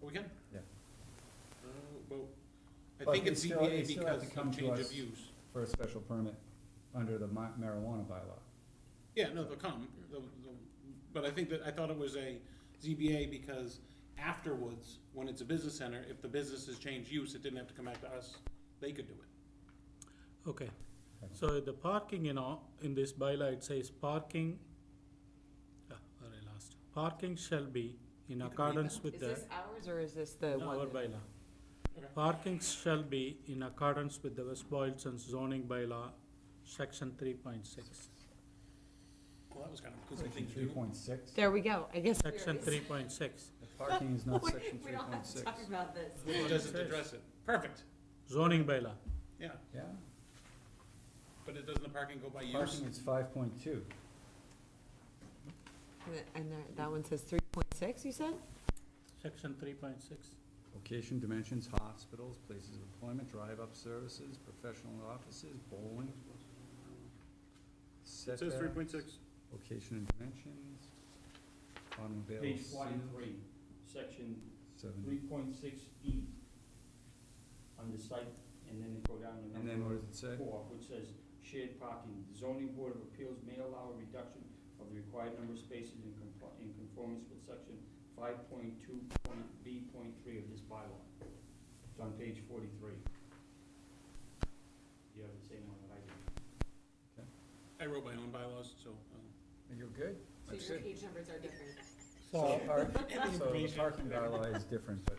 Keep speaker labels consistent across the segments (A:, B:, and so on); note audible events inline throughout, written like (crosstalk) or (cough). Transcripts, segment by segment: A: we can.
B: Yeah.
A: Uh, Well, I
B: But
A: think
B: they
A: it's
B: still- they
A: ZBA
B: still have
A: because
B: to come
A: of
B: to
A: change
B: us.
A: of use.
B: for a special permit under the ma- marijuana bylaw.
A: Yeah, no, they'll come, they'll, they'll, but I think that, I thought it was a ZBA because afterwards, when it's a business center, if the business has changed use, it didn't have to come back to us, they could do it.
C: Okay, so the parking, you know, in this bylaw, it says parking, ah, where I lost, parking shall be
A: You can
C: in
A: read
C: accordance with
D: Is
C: the,
D: this ours or is this the
C: no,
D: one?
C: our
D: that-
C: bylaw.
A: Okay.
C: Parking shall be in accordance with the West Boylston zoning bylaw, section three point six.
A: Well, that was kind of, because I
B: Section
A: think
B: three
A: you,
B: point six,
D: There we go, I guess there
C: Section
D: is. (laughs)
C: three point six,
B: parking is not
D: We-
B: section
D: We
B: three
D: don't
B: point
D: have to
B: six.
D: talk about this.
A: it doesn't
C: Yes.
A: address it, perfect,
C: zoning bylaw,
A: yeah,
B: Yeah,
A: but it doesn't the parking go by use?
B: parking is five point two.
D: And th- And there- that one says three point six, you said?
C: section three point six.
B: Location, dimensions, hospitals, places of employment, drive-up services, professional offices, bowling.
A: It says three point six.
B: Location and dimensions, automobile.
E: Page forty-three, section three
B: Seven,
E: point six E, on the site, and then go down to
B: and then what
E: number
B: does it say?
E: four, which says shared parking. The zoning board of appeals may allow a reduction of the required number of spaces in compli- in conformance with section five point two point B point three of this bylaw. It's on page forty-three. You have the same one that I did.
A: I wrote my own bylaws, so. uh,
B: You're good?
D: So your page numbers are different.
B: So, our- (laughs) so the
A: Information.
B: parking bylaw is different, but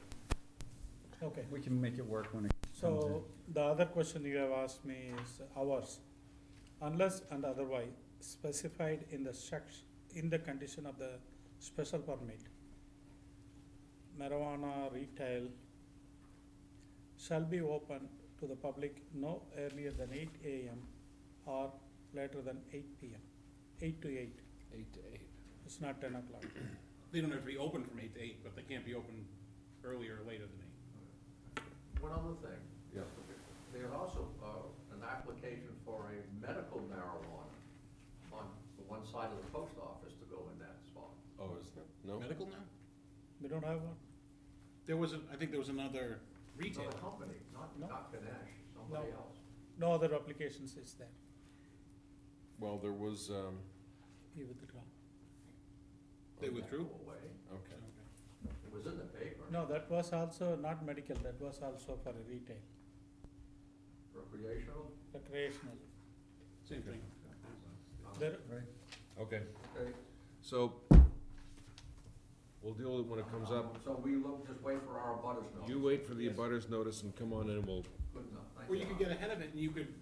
C: Okay,
B: we can make it work when it comes in.
C: So, the other question you have asked me is hours. Unless and otherwise specified in the section, in the condition of the special permit, marijuana retail shall be open to the public no earlier than eight AM or later than eight PM, eight to eight.
A: Eight to eight.
C: It's not ten o'clock.
A: They don't have to be open from eight to eight, but they can't be open earlier or later than eight.
F: One other thing.
B: Yeah.
F: There's also uh, an application for a medical marijuana on the one side of the post office to go in that spot.
G: Oh, is that, no?
A: Medical now?
C: We don't have one?
A: There was, a- I think there was another
B: Oh,
A: retail.
F: Another company, not,
C: No.
F: not Ganesh, somebody
C: No.
F: else.
C: No other applications is there.
G: Well, there was, um,
C: You withdraw.
A: They
G: oh, yeah,
A: withdrew?
F: Away.
G: Okay,
F: It was in the paper,
C: No, that was also not medical, that was also for retail,
F: recreational.
C: recreational.
A: Same thing.
C: There,
B: Right,
G: okay.
F: Okay.
G: So, we'll deal with it when it comes up.
F: Um, So we look, just wait for our butters notice.
G: You wait for the abutters notice and come on in, we'll,
F: Good enough, thank
A: Or you could get ahead of it and you could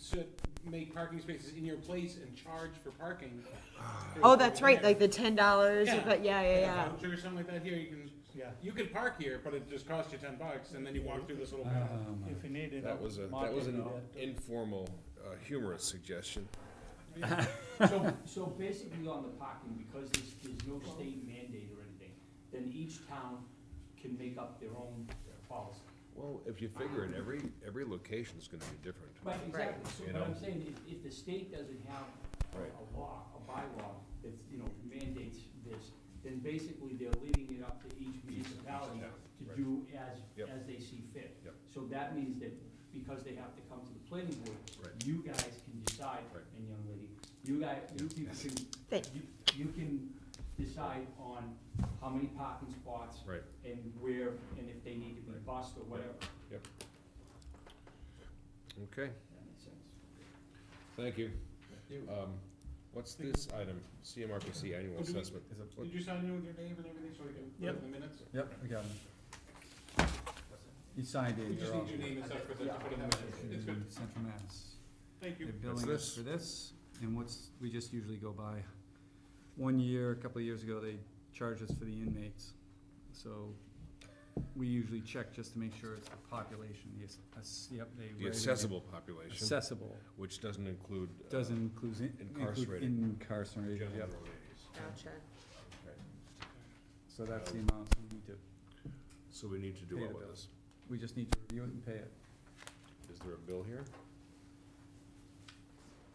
A: sit, make parking spaces in your place and charge for parking.
B: Ah.
D: Oh, that's right, like the ten dollars,
A: Yeah.
D: but yeah, yeah,
A: Like a
D: yeah.
A: voucher Or something like that here, you can,
C: yeah,
A: you could park here, but it just costs you ten bucks and then you walk through this little path.
B: um,
C: if you need, you know.
G: that was a, that
C: market
G: was an
C: area to-
G: informal, uh, humorous suggestion.
E: So, so basically on the parking, because there's, there's no state mandate or anything, then each town can make up their own policy.
G: Well, if you figure it, every, every location's gonna be different.
E: Right, exactly, so,
G: You
E: but
G: know?
E: I'm saying, if, if the state doesn't have a-
G: Right.
E: a law, a bylaw that, you know, mandates this, then basically they're leaving it up to each municipality
G: Yeah,
E: to do
G: right.
E: as,
G: Yep.
E: as they see fit.
G: Yep.
E: So that means that because they have to come to the planning board,
G: Right.
E: you guys can decide,
G: Right.
E: and young lady, you guys, you people can,
D: Thank
E: you, you can decide on how many parking spots
G: Right.
E: and where, and if they need to be
G: Right.
E: bused or whatever.
G: Okay,
E: That makes sense.
G: thank you.
F: you.
G: Um, what's this item? CMRPC annual
A: Oh, do we-
G: assessment.
B: is it-
A: Did you sign in with your name and everything so we can put it in the minutes?
B: Yep, we got him. He signed
A: We
B: in,
A: just
B: they're
A: need
B: all.
A: your name and stuff for that to put in the minutes. It's good.
B: in Central Mass.
A: Thank
B: They're
A: you.
B: billing
G: What's
B: us for this, and what's, we just usually go by, one year, a couple of years ago, they charged us for the inmates. So we usually check just to make sure it's the population, the, ass- ass- yep, they. rated
G: The
B: it
G: accessible population,
B: Accessible,
G: which doesn't include. uh,
B: doesn't include, include
G: Incarcerated.
B: incarcerated,
G: general
B: yep.
G: release.
D: Gotcha.
B: So that's the amount we need to,
G: So we need to do
B: Pay
G: what
B: the
G: with
B: bill.
G: this?
B: we just need to review it and pay it.
G: Is there a bill here?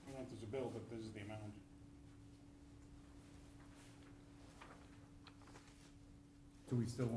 A: I don't know if there's a bill, but this is the amount.
B: Do we still